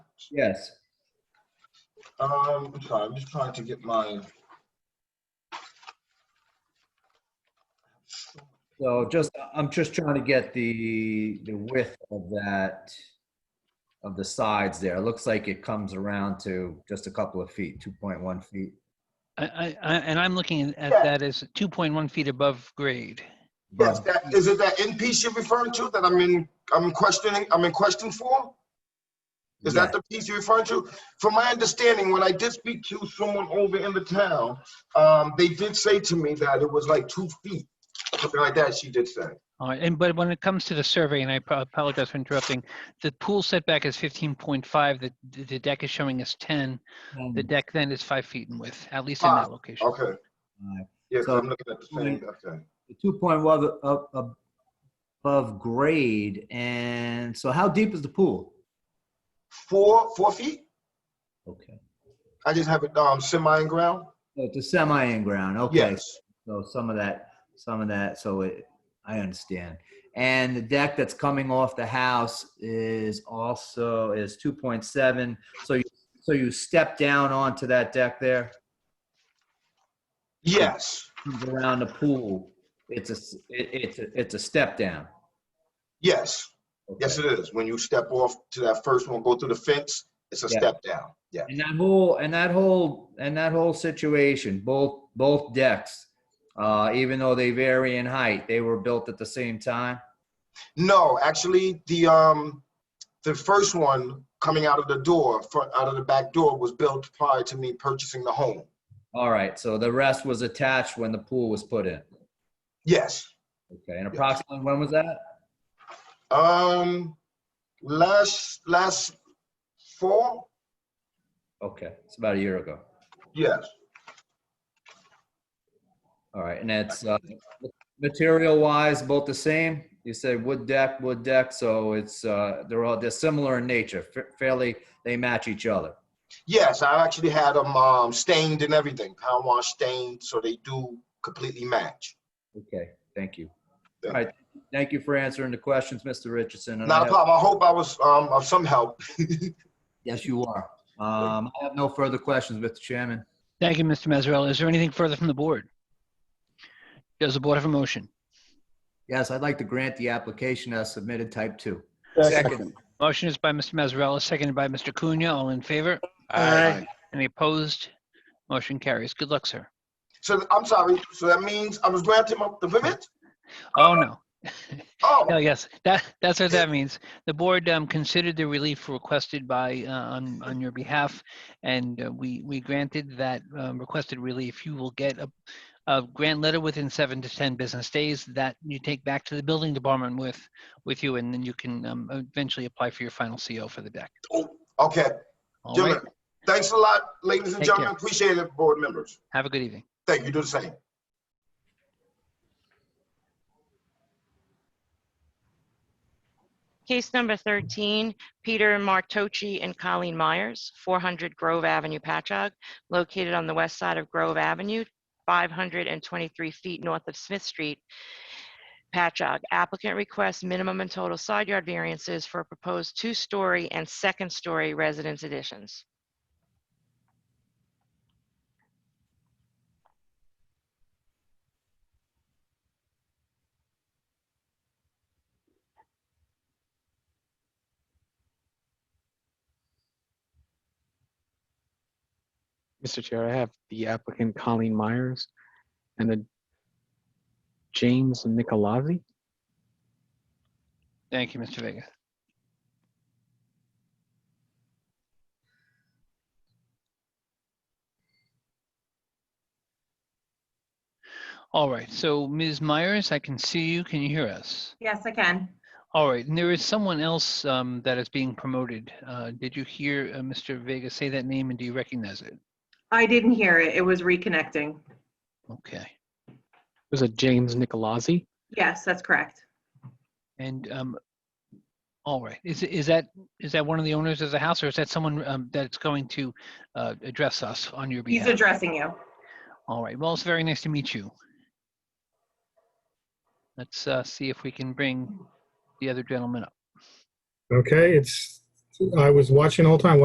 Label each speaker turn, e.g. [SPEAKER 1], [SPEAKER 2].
[SPEAKER 1] Yes.
[SPEAKER 2] Um, I'm sorry, I'm just trying to get my.
[SPEAKER 1] So just, I'm just trying to get the, the width of that, of the sides there. It looks like it comes around to just a couple of feet, 2.1 feet.
[SPEAKER 3] I, I, I- and I'm looking at
[SPEAKER 2] Yeah.
[SPEAKER 3] that as 2.1 feet above grade.
[SPEAKER 2] Yes, that, is it that end piece you're referring to that I'm in, I'm questioning, I'm in question for? Is that the piece you're referring to? From my understanding, when I did speak to someone over in the town, um, they did say to me that it was like two feet, something like that, she did say.
[SPEAKER 3] All right, and but when it comes to the survey, and I pro- apologize for interrupting, the pool setback is 15.5, the, the- the deck is showing us 10.
[SPEAKER 1] Um,
[SPEAKER 3] The deck then is five feet in width, at least in
[SPEAKER 2] Ah,
[SPEAKER 3] that location.
[SPEAKER 2] Okay, yes,
[SPEAKER 1] So-
[SPEAKER 2] I'm looking at the same, okay.
[SPEAKER 1] the 2.1 ab- ab- above grade. And so how deep is the pool?
[SPEAKER 2] Four, four feet?
[SPEAKER 1] Okay.
[SPEAKER 2] I just have it, um, semi in ground?
[SPEAKER 1] So Oh, It's a semi in ground, okay.
[SPEAKER 2] Yes,
[SPEAKER 1] So some of that, some of that, so it, I understand. And the deck that's coming off the house is also, is 2.7. So you, so you step down onto that deck there,
[SPEAKER 2] yes,
[SPEAKER 1] comes around the pool. It's a, s- it- it's, a- it's a step down.
[SPEAKER 2] yes. Yes,
[SPEAKER 1] Okay.
[SPEAKER 2] it is. When you step off to that first one, go through the fence, it's a
[SPEAKER 1] Yeah.
[SPEAKER 2] step down. Yeah.
[SPEAKER 1] And that whole, and that whole, and that whole situation, both, both decks, uh, even though they vary in height, they were built at the same time?
[SPEAKER 2] No, actually, the um, the first one coming out of the door, front out of the back door, was built prior to me purchasing the home.
[SPEAKER 1] All right, so the rest was attached when the pool was put in.
[SPEAKER 2] Yes.
[SPEAKER 1] Okay, and approximately when was that?
[SPEAKER 2] Um, last last fall.
[SPEAKER 1] Okay, it's about a year ago.
[SPEAKER 2] Yes.
[SPEAKER 1] All right, and that's, uh, material wise, both the same? You said wood deck, wood deck, so it's, uh, they're all, they're similar in nature, fa- fairly, they match each other.
[SPEAKER 2] Yes, I actually had them um, stained and everything, power wash stained, so they do completely match.
[SPEAKER 1] Okay, thank you.
[SPEAKER 2] Yeah.
[SPEAKER 1] All right, thank you for answering the questions, Mr. Richardson. and I
[SPEAKER 2] Not a
[SPEAKER 1] have-
[SPEAKER 2] problem. I hope I was um, of some help.
[SPEAKER 1] Yes, you are. Um, I have no further questions, Mr. Chairman.
[SPEAKER 3] Thank you, Mr. Mazzarella. Is there anything further from the board? Does the board have a motion?
[SPEAKER 1] Yes, I'd like to grant the application as submitted type two.
[SPEAKER 4] Second.
[SPEAKER 3] Motion is by Mr. Mazzarella, seconded by Mr. Cunha. All in favor?
[SPEAKER 4] Aye.
[SPEAKER 3] Any opposed? Motion carries. Good luck, sir.
[SPEAKER 2] So I'm sorry. So that means I was granted my, the permit.
[SPEAKER 3] Oh, no.
[SPEAKER 2] Oh,
[SPEAKER 3] Oh, yes, that, that's what that means. The board um, considered the relief requested by, uh, on, on your behalf, and uh, we, we granted that um, requested relief. You will get a, a grant letter within seven to 10 business days that you take back to the building department with, with you, and then you can um, eventually apply for your final CO for the deck.
[SPEAKER 2] okay.
[SPEAKER 3] All right,
[SPEAKER 2] Gentlemen, thanks a lot, ladies and
[SPEAKER 3] Take
[SPEAKER 2] gentlemen.
[SPEAKER 3] care.
[SPEAKER 2] Appreciate it, board members.
[SPEAKER 3] have a good evening.
[SPEAKER 2] Thank you. Do the same.
[SPEAKER 5] Case number 13, Peter Martocci and Colleen Myers, 400 Grove Avenue, Patchogue, located on the west side of Grove Avenue, 523 feet north of Smith Street, Patchogue. Applicant requests minimum and total side yard variances for proposed two-story and second-story residence additions.
[SPEAKER 4] Mr. Chair, I have the applicant Colleen Myers and a James Nicolazzi.
[SPEAKER 3] Thank you, Mr. Vega. All right, so Ms. Myers, I can see you. Can you hear us?
[SPEAKER 6] Yes, I can.
[SPEAKER 3] All right, and there is someone else um, that is being promoted. Uh, Did you hear uh, Mr. Vega say that name and do you recognize it?
[SPEAKER 6] I didn't hear it. It was reconnecting.
[SPEAKER 3] Okay,
[SPEAKER 4] There's a James Nicolazzi.
[SPEAKER 6] Yes, that's correct.
[SPEAKER 3] and, um, all right, is, is that, is that one of the owners of the house or is that someone um, that's going to uh, address us on your behalf?
[SPEAKER 6] He's addressing you.
[SPEAKER 3] All right. Well, it's very nice to meet you. Let's uh, see if we can bring the other gentleman up.
[SPEAKER 7] Okay, it's, I was watching all the time.